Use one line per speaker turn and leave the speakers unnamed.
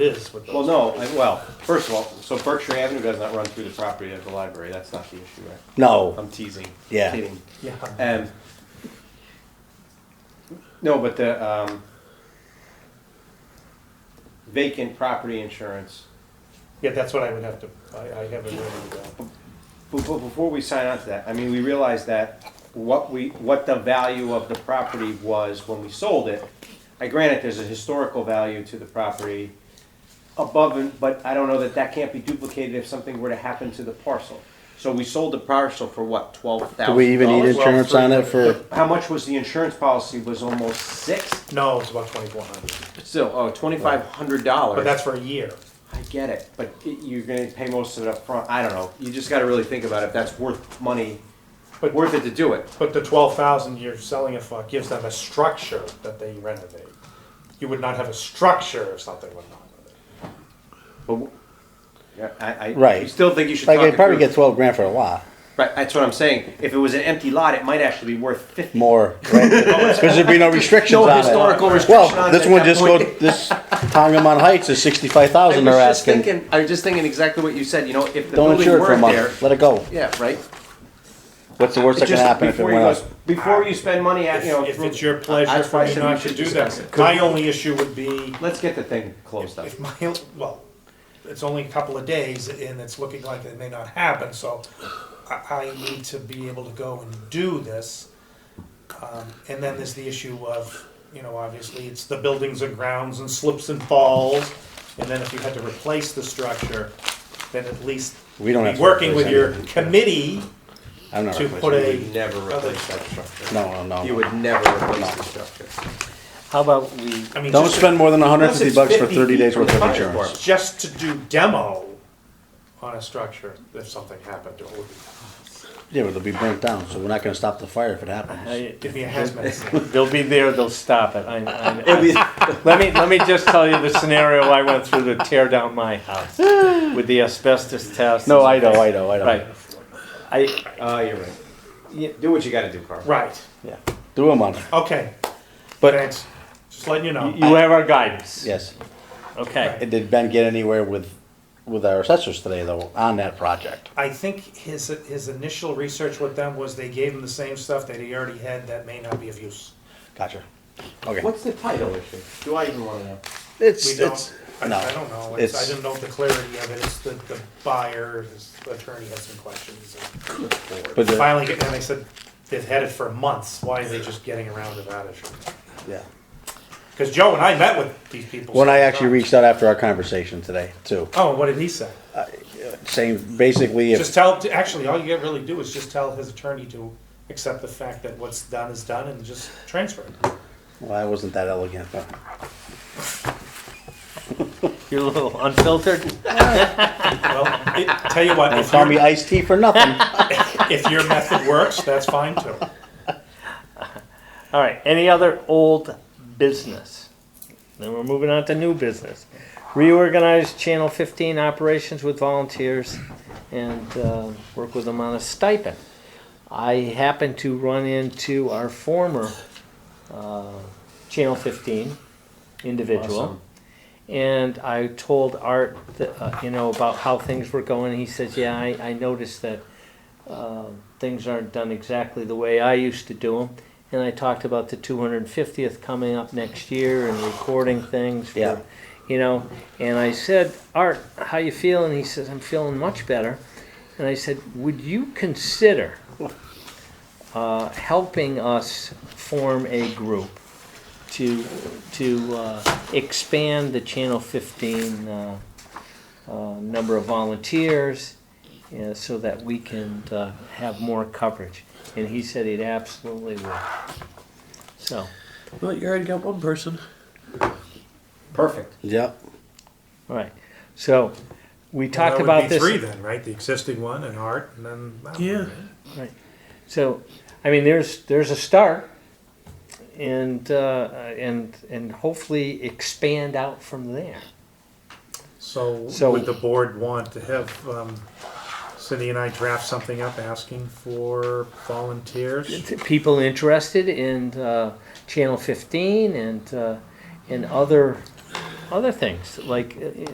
is with
Well,
those.
no, I- well, first of all, so Berkshire Avenue does not run through the property of the library, that's not the issue, right?
No,
I'm teasing.
Yeah.
Kidding.
Yeah.
And, no, but the, um, vacant property insurance,
Yeah, that's what I would have to, I, I haven't really, uh,
before, before we sign on to that, I mean, we realized that what we, what the value of the property was when we sold it. I granted there's a historical value to the property above, and but I don't know that that can't be duplicated if something were to happen to the parcel. So we sold the parcel for what, twelve thousand
do we even need insurance on it for,
How much was the insurance policy, was almost six,
no, it's about twenty-four hundred,
still, oh, twenty-five hundred dollars.
but that's for a year.
I get it, but it- you're gonna pay most of it up front. I don't know, you just gotta really think about if that's worth money,
But-
worth it to do it.
But the twelve thousand you're selling it for gives them a structure that they renovate. You would not have a structure if something went wrong with it.
But w- yeah, I, I
Right.
you still think you should
like,
talk
they
it
probably
through.
get twelve grand for a lot,
Right, that's what I'm saying. If it was an empty lot, it might actually be worth fifty.
more, right? Cause there'd be no restrictions
No
on it.
historical restriction on
Well,
it
this
at
one
that
just go,
point.
this Tongamon Heights is sixty-five
I
thousand
was
they're
just
asking.
thinking. I was just thinking exactly what you said. You know, if the
Don't
building
insure it for a
weren't there,
month, let it go.
yeah, right.
What's the worst that
It's
can
just
happen if it
before you
went
goes,
up?
before you spend money, at, you know,
If if
through-
it's your pleasure
that's why
for
I
me
said we
not to
should
do
discuss
that,
it.
my only issue would be
Let's get the thing closed up.
If my, well, it's only a couple of days and it's looking like it may not happen, so I, I need to be able to go and do this. Um, and then there's the issue of, you know, obviously it's the buildings and grounds and slips and falls. And then if you had to replace the structure, then at least
We don't have
be
to
working
replace
with your
anything.
committee
I'm not,
to
replacing
put
it.
a.
You would never
other-
replace that structure.
no, no,
You
no.
would never replace the structure.
How about we,
I mean,
Don't
just-
spend more than hundred and
Unless
fifty
it's
bucks for
50
thirty
feet
days
from
worth
the
of
fire
insurance.
department.
just to do demo on a structure if something happened, it would be,
Yeah, but it'll be burnt down, so we're not gonna stop the fire if it happens.
give me a hazmat suit.
uh, they'll be there, they'll stop it. I, I,
It'd be-
let me let me just tell you the scenario I went through to tear down my house with the asbestos test.
No, I know, I know, I know.
Right. I
Ah, you're right.
Yeah.
Do what you got to do, Carl.
Right.
yeah.
Do a month,
Okay.
but.
Thanks. Just letting you know.
You have our guidance.
Yes.
Okay.
Did Ben get anywhere with, with our assessors today though, on that project?
I think his his initial research with them was they gave him the same stuff that he already had that may not be of use.
Gotcha. Okay.
What's the title issue? Do I even want to know?
It's,
We don't.
it's,
I,
no.
I don't know. It's, I
It's-
didn't know the clarity of it. It's the, the buyer, his attorney had some questions. And
But, the-
finally, get- and they said they've had it for months. Why are they just getting around to that issue?
yeah.
Because Joe and I met with these people.
When I
several
actually
times.
reached out after our conversation today too,
Oh, what did he say?
saying basically
Just
if,
tell, actually, all you gotta really do is just tell his attorney to accept the fact that what's done is done and just transfer it.
well, I wasn't that elegant, but
You're a little unfiltered.
Well, it, tell you what,
don't
if
call me
your,
iced tea for nothing.
if your method works, that's fine too.
All right. Any other old business? Then we're moving on to new business. Reorganize Channel 15 operations with volunteers and uh, work with them on a stipend. I happened to run into our former uh, Channel 15 individual.
Awesome.
And I told Art, that, uh, you know, about how things were going. He says, "Yeah, I, I noticed that um, things aren't done exactly the way I used to do them. And I talked about the 250th coming up next year and recording things. For,
Yeah.
You know, and I said, Art, how you feeling? He says, I'm feeling much better. And I said, Would you consider uh, helping us form a group to to uh, expand the Channel 15 uh, uh, number of volunteers you know, so that we can uh, have more coverage. And he said he'd absolutely would. So,
Well, you already got one person.
Perfect.
Yep.
all right. So, we talked
That would
about
be
this.
Three then, right? The existing one and art and then. that one,
Yeah.
right?
So, I mean, there's there's a start, and uh, and and hopefully expand out from there.
So
So-
would the board want to have, um, Cindy and I draft something up asking for volunteers?
t- people interested in uh, Channel 15 and uh, and other other things, like, uh,